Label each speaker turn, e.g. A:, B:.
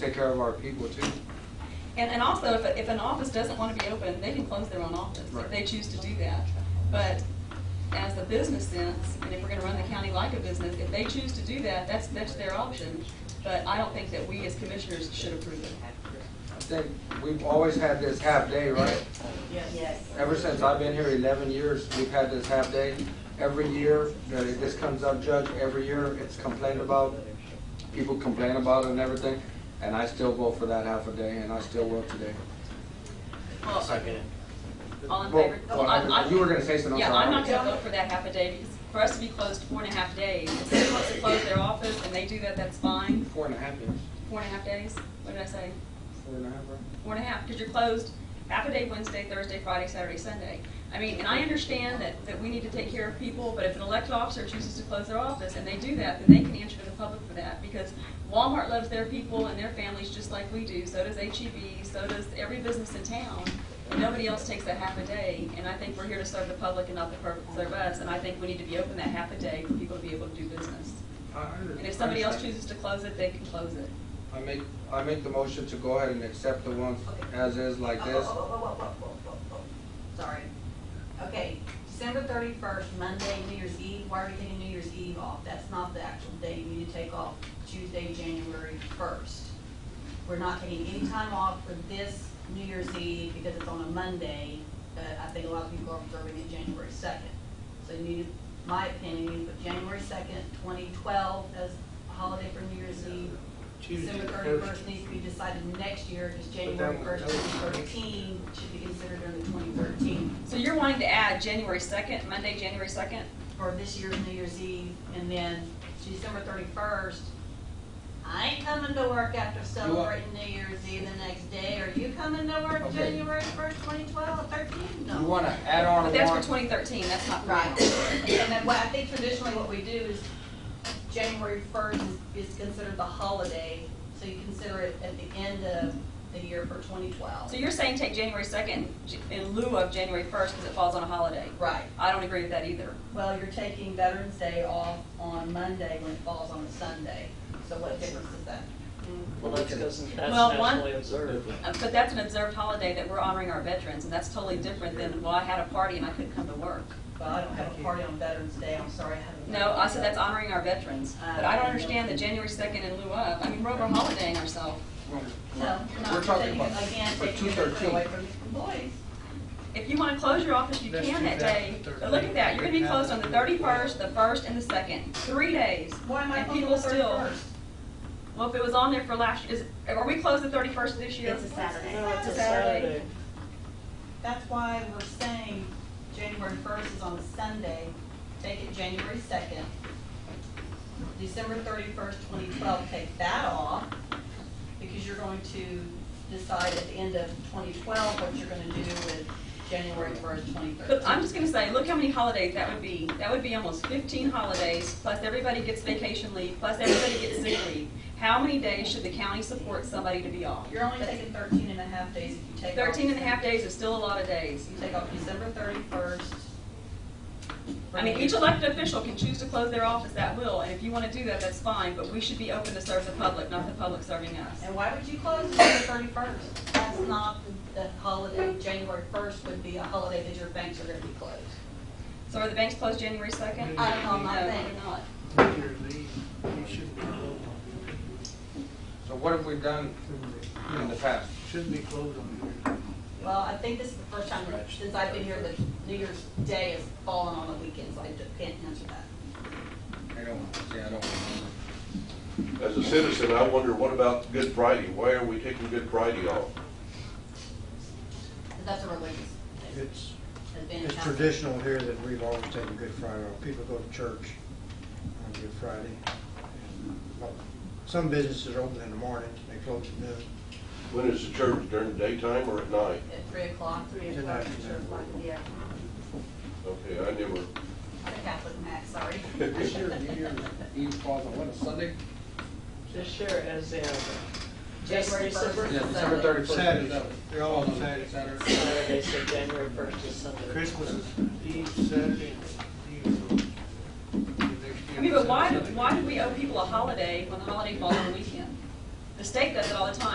A: take care of our people too.
B: And, and also, if, if an office doesn't want to be open, they can close their own office
A: Right.
B: if they choose to do that. But as a business sense, and if we're going to run the county like a business, if they choose to do that, that's, that's their option. But I don't think that we as commissioners should approve it.
A: I think we've always had this half day, right?
C: Yes.
A: Ever since I've been here eleven years, we've had this half day. Every year, uh, this comes up, Judge, every year, it's complained about. People complain about it and everything, and I still vote for that half a day, and I still will today.
B: Well,
D: Second.
B: All in
A: Well,
B: favor?
A: well,
B: I- I-
A: you were gonna say something, I'm
B: Yeah,
A: sorry.
B: I'm not going to vote for that half a day because for us to be closed four and a half days, if somebody wants to close their office and they do that, that's fine.
A: Four and a half years,
B: Four and a half days, what did I say?
A: four and a half, right?
B: four and a half, because you're closed half a day Wednesday, Thursday, Friday, Saturday, Sunday. I mean, and I understand that, that we need to take care of people, but if an elected officer chooses to close their office and they do that, then they can answer to the public for that, because Walmart loves their people and their families just like we do, so does HEB, so does every business in town. And Nobody else takes that half a day, and I think we're here to serve the public and not the public to serve us, and I think we need to be open that half a day for people to be able to do business.
A: I- I under-
B: And if somebody else
A: understand.
B: chooses to close it, they can close it.
A: I make, I make the motion to go ahead and accept the ones as is like this.
C: Oh, oh, oh, oh, oh, oh, oh, oh. Sorry. Okay, December thirty-first, Monday, New Year's Eve, why are we taking New Year's Eve off? That's not the actual day you need to take off, Tuesday, January first. We're not taking any time off for this New Year's Eve because it's on a Monday, but I think a lot of people are observing it January second. So you need, my opinion, you need to put January second, twenty twelve as a holiday for New Year's Eve. December thirty-first needs to be decided next year, because January
A: that
C: first,
A: was-
C: twenty thirteen should be considered under twenty thirteen
B: So you're wanting to add January second, Monday, January second?
C: for this year's New Year's Eve, and then December thirty-first. I ain't coming to work after celebrating New Year's Eve the next day, are you coming to work
A: Okay.
C: January first, twenty twelve, thirteen? No.
A: You wanna add on
B: oh. But
A: one?
B: that's for 2013, that's not for now.
C: Right, and then what I think traditionally what we do is January first is considered the holiday, so you consider it at the end of the year for twenty twelve.
B: So you're saying take January 2nd j- in lieu of January 1st because it falls on a holiday?
C: Right.
B: I don't agree with that either.
C: Well, you're taking Veterans Day off on Monday when it falls on a Sunday, so what difference is that?
D: Well, that's because that's
B: Well, one-
D: nationally observed.
B: Uh, But that's an observed holiday that we're honoring our veterans, and that's totally different than, well, I had a party and I couldn't come to work.
C: Well, I don't have a party on Veterans Day, I'm sorry, I haven't.
B: No, I said that's honoring our veterans.
C: Uh,
B: But I don't understand the January 2nd in lieu of, I mean, we're over holidaying ourselves.
C: No,
A: We're
C: not
A: talking
C: taking,
A: about,
C: again,
A: for
C: taking
A: two
C: it away
A: thirteen.
C: from the employees.
B: If you want to close your office, you
E: Let's
B: can
E: do
B: that
E: that
B: day.
E: the
B: But look at that, you're going to be
E: 13th.
B: closed on the 31st, the 1st, and the 2nd, three days.
C: Why am I
B: And
C: on the
B: people still,
C: 31st?
B: well, if it was on there for last, is, are we closed the 31st this year?
F: It's a Saturday.
D: No, it's a
B: Saturday.
D: Saturday.
C: That's why we're saying January first is on a Sunday, take it January second. December thirty-first, twenty twelve, take that off, because you're going to decide at the end of twenty twelve what you're gonna do with January first, twenty
B: But I'm
C: thirteen.
B: just gonna say, look how many holidays that would be. That would be almost fifteen holidays, plus everybody gets vacation leave, plus everybody gets sick leave. How many days should the county support somebody to be off?
C: You're only taking 13 and a half days if you take off.
B: Thirteen and a half days is still a lot of days.
C: You take off December thirty-first.
B: I mean, each elected official can choose to close their office at will, and if you wanna do that, that's fine, but we should be open to serve the public, not the public serving us.
C: And why would you close December thirty-first? That's not the the holiday, January first would be a holiday that your banks are gonna be closed.
B: So are the banks closed January second?
F: Uh,
C: I don't know, my
B: No,
C: bank.
B: they're not.
E: Peter Lee, he shouldn't be closed
A: So what have we done
E: on.
A: in the past?
E: Shouldn't be closed on here.
C: Well, I think this is the first time since I've been here that New Year's Day has fallen on a weekend, so I d- can't answer that.
A: I don't, see, I don't remember.
G: As a citizen, I wonder, what about Good Friday? Why are we taking Good Friday off?
C: 'Cause that's a religious, thing.
H: It's,
C: has been.
H: it's
C: counted.
H: traditional here that we've always taken Good Friday off. People go to church on Good Friday. and, well, Some businesses are open in the morning, they close at noon.
G: When is the church, during the daytime or at night?
C: At three o'clock,
F: Three
H: Didn't
F: o'clock,
H: have to.
F: two o'clock, yeah.
G: Okay, I never,
C: the Catholic mass, sorry.
A: This year, New Year's Eve falls on what, a Sunday?
D: This year, as in, just
C: January first.
D: December,
A: Yeah, December thirty-first.
E: Saturday, they're all on Saturday.
A: Saturday.
D: Saturday, so January first is Sunday.
E: Christmas is Eve, Saturday, Eve.
B: I mean, but why, why do we owe people a holiday when the holiday falls on a weekend? The state does it all the time.